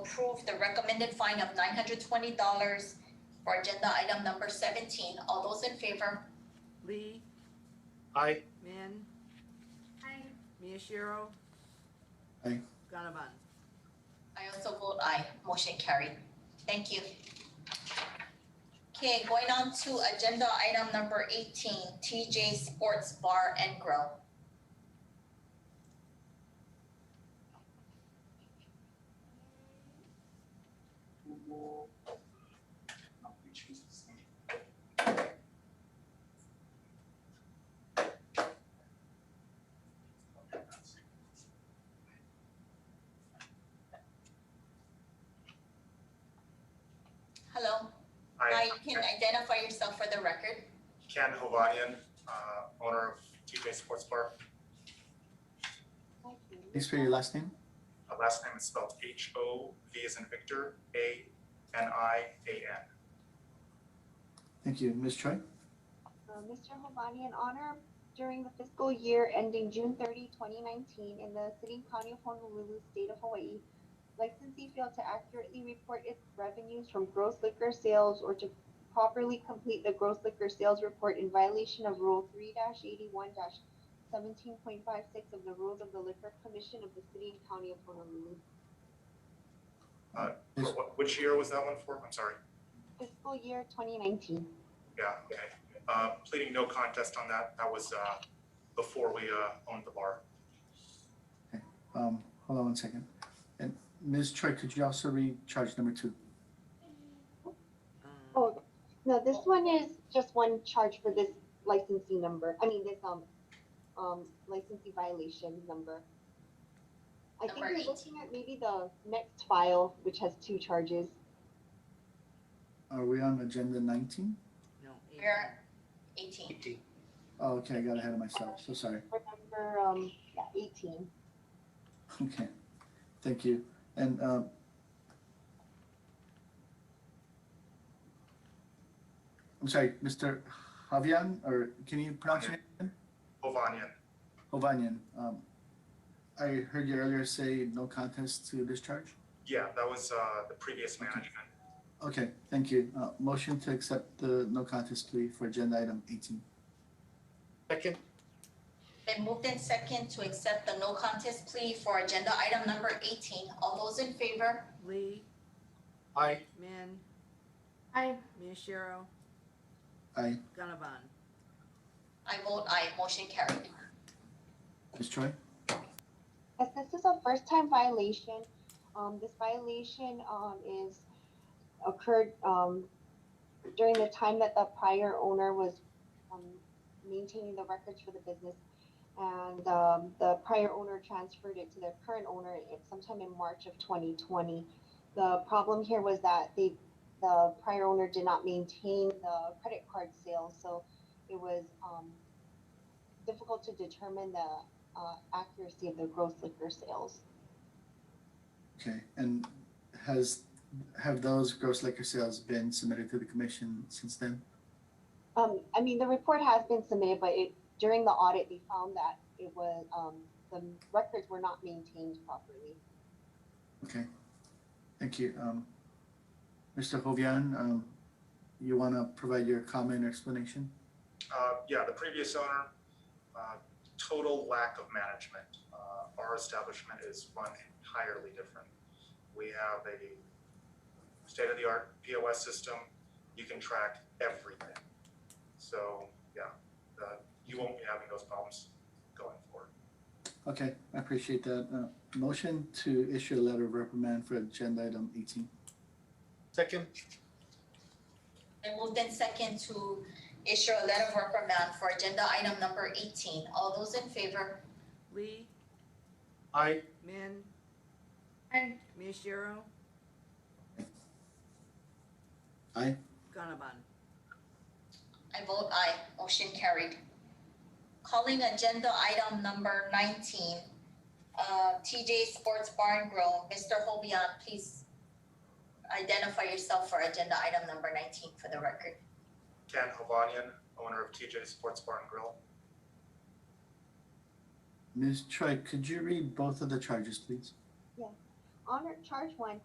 approve the recommended fine of nine hundred twenty dollars for agenda item number seventeen. All those in favor? Lee, Aye. Min, Aye. Miyashiro. Aye. Gannabon. I also vote aye. Motion carried. Thank you. Okay, going on to agenda item number eighteen, TJ Sports Bar and Grill. Hello, hi, Hi, you can identify yourself for the record. Ken Hovadian, uh, owner of TJ Sports Bar. Please spell your last name. Uh, Last name is spelled H O V as in Victor, A N I A N. Thank you. Ms. Choi? Uh, Mr. Hovani, in honor during the fiscal year ending June 30, 2019, in the city and county of Honolulu, state of Hawaii, licensee failed to accurately report its revenues from gross liquor sales or to properly complete the gross liquor sales report in violation of Rule 3-81-17.56 of the Rules of the Liquor Commission of the city and county of Honolulu. Yes. For what- Which year was that one for? I'm sorry. Fiscal year 2019. Yeah, okay. Uh, Pleading no contest on that. That was uh, before we uh, owned the bar. Um, hold on one second. And Ms. Choi, could you also read charge number two? Uh, Oh, no, this one is just one charge for this licensing number, I mean, this, um, um, licensing violation number. I think Number you're eight. looking at maybe the next file, which has two charges. Are we on agenda nineteen? No. eight. We're eighteen. Oh, okay, I got ahead of myself. So sorry. For number, um, yeah, eighteen. Okay, thank you. And, um, I'm sorry, Mr. Javian, or can you pronounce your name? Hovanian, Hovanian. Um, I heard you earlier say no contest to discharge. yeah, that was uh, the previous management. Okay, thank you. Uh, motion to accept the no contest plea for agenda item eighteen. Second. Then moved in second to accept the no contest plea for agenda item number eighteen. All those in favor? Lee, Aye. Min, Aye. Miyashiro, Aye. Gannabon. I vote aye. Motion carried. Ms. Choi? As this is a first time violation, um, this violation, um, is occurred, um, during the time that the prior owner was, um, maintaining the records for the business. And, um, the prior owner transferred it to their current owner in- sometime in March of twenty twenty. The problem here was that they, the prior owner did not maintain the credit card sales, so it was, um, difficult to determine the uh, accuracy of the gross liquor sales. Okay, and has, have those gross liquor sales been submitted to the commission since then? Um, I mean, the report has been submitted, but it, during the audit, they found that it was, um, the records were not maintained properly. Okay, thank you. Um, Mr. Hovian, um, you want to provide your comment or explanation? Uh, yeah, the previous owner, uh, total lack of management. Uh, our establishment is run entirely different. We have a state-of-the-art POS system. You can track everything. So, yeah, uh, you won't be having those problems going forward. Okay, I appreciate that. Uh, motion to issue a letter of reprimand for agenda item eighteen. Second. Then moved in second to issue a letter of reprimand for agenda item number eighteen. All those in favor? Lee, Aye. Min, Aye. Miyashiro. Aye. Gannabon. I vote aye. Motion carried. Calling agenda item number nineteen, uh, TJ Sports Bar and Grill. Mr. Hobian, please identify yourself for agenda item number nineteen for the record. Ken Hovanian, owner of TJ Sports Bar and Grill. Ms. Choi, could you read both of the charges, please? Honor, charge one,